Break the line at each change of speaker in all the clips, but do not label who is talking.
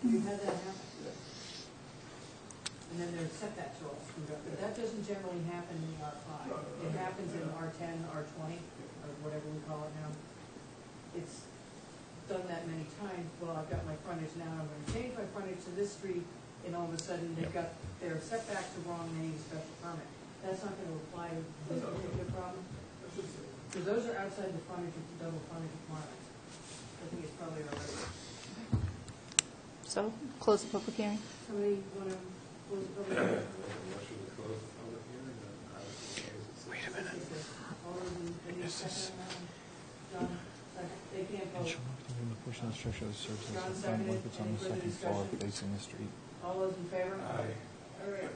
We've had that happen to us. And then they're set that to us, but that doesn't generally happen in the R five. It happens in R ten, R twenty, or whatever we call it now. It's done that many times, well, I've got my frontage now, I'm gonna change my frontage to this street, and all of a sudden, they've
Yep.
got their setback to wrong name special permit. That's not gonna apply to this particular problem, because those are outside the frontage of the double frontage requirement. I think it's probably already.
So, close the public hearing.
Somebody wanna close the public hearing?
Wait a minute.
All those in, any second, um, John, second, they can't vote.
Given the portion of the structure that serves as
John
a
seconded.
sidewalk that's on
Any
the
further
second floor
discussion?
facing the street.
All those in favor?
Aye.
All right,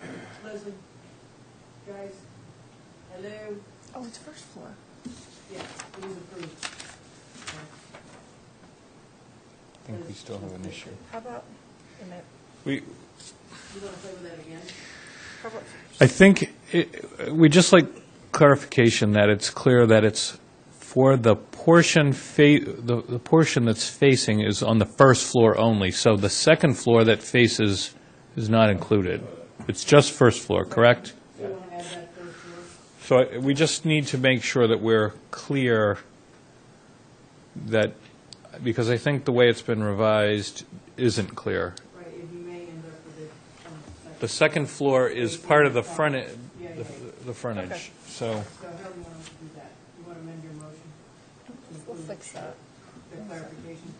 Leslie, guys, hello,
Oh, it's first floor.
yeah, it is approved.
I think we still have an issue.
How about, and that-
We,
You wanna play with that again?
how about,
I think, it- we just like clarification that it's clear that it's for the portion, fa- the the portion that's facing is on the first floor only, so the second floor that faces is not included. It's just first floor, correct?
So you wanna add that first word?
So I- we just need to make sure that we're clear that, because I think the way it's been revised isn't clear.
Right, if you may end up with it on
The
the second.
second floor is part of the front, e-
Yeah, yeah, yeah.
the- the frontage,
Okay.
so.
So how do you want us to do that? You wanna amend your motion? to
we'll
include
fix that.
The clarification.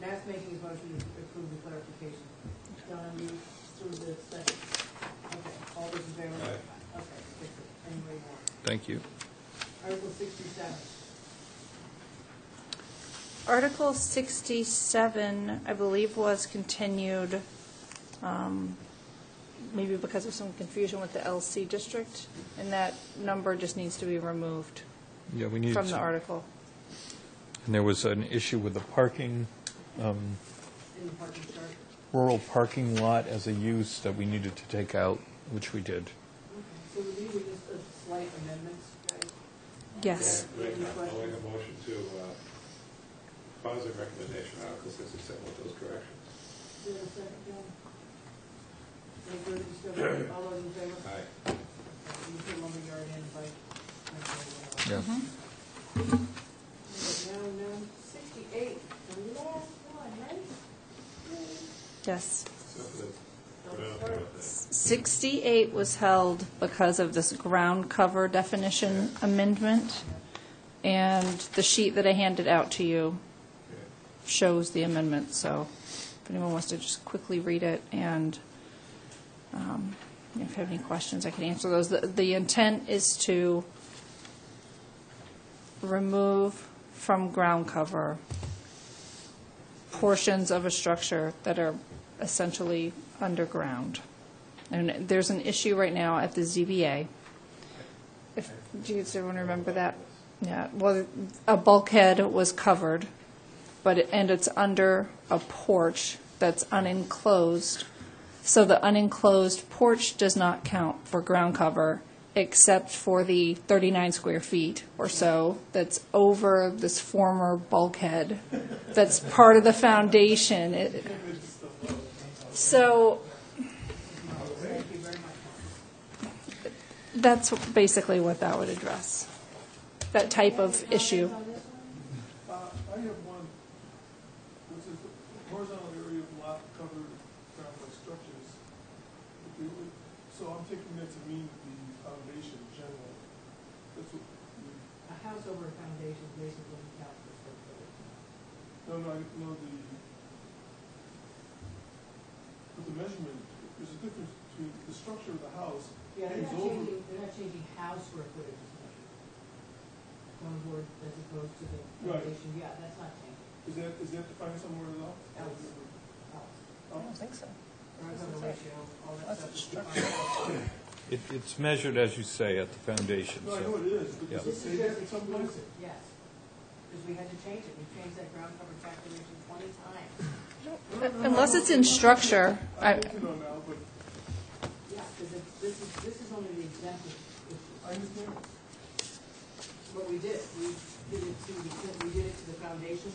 Matt's making his motion to approve the clarification. Donna, you through the second. Okay, all those in favor? Okay, fix it any way you want.
Thank you.
Article sixty-seven.
Article 67, I believe, was continued, um, maybe because of some confusion with the LC district, and that number just needs to be removed
Yeah, we need
from the
to-
article.
And there was an issue with the parking, um,
in the parking chart.
rural parking lot as a use that we needed to take out, which we did.
Okay, So these are just the slight amendments, guys?
Yes.
Yeah, Any
I'll make
questions?
a motion to uh, positive recommendation, Article 67, with those corrections.
Is there a second, John? Any further discussion? All those in favor?
Aye.
You put lumberyard in by.
Yeah.
Mm-hmm.
Now, now, sixty-eight, the last one, right?
Yes.
Except for the,
Don't
uh,
worry.
68 was held because of this ground cover definition amendment, and the sheet that I handed out to you
okay.
shows the amendment, so if anyone wants to just quickly read it, and um, if you have any questions, I can answer those. The- The intent is to remove from ground cover portions of a structure that are essentially underground. And there's an issue right now at the ZBA. If, do you does everyone remember that? Yeah, well, a bulkhead was covered, but, it- and it's under a porch that's unenclosed. So the unenclosed porch does not count for ground cover, except for the 39 square feet or so that's over this former bulkhead that's part of the foundation. It- So that's basically what that would address, that type of issue.
Uh, I have one, which is horizontal area of lot covered ground by structures. If they would- So I'm taking that to mean the foundation in general. That's what, we-
A house over a foundation basically counts for square footage.
no, no, I know the, but the measurement, there's a difference between the structure of the house
Yeah, they're
hangs
not
over.
changing, they're not changing house square footage as much. One word as opposed to the
Right.
foundation, yeah, that's not changing,
Is that, is that defined somewhere at all?
Yes. house.
Oh,
think so.
Horizontal ratio, all that
That's
stuff
a
is
structure.
defined.
It, it's measured, as you say, at the foundation,
No, I know it is, but
Yeah.
does it
This
say
is
that
just
in some place?
exclusive, yes. Because we had to change it, we changed that ground cover calculation twenty times.
Unless it's in structure,
I'm
I,
looking on now, but
Yeah, because this is, this is only the exemption.
I understand.
What we did, we did it to, the- we did it to the foundation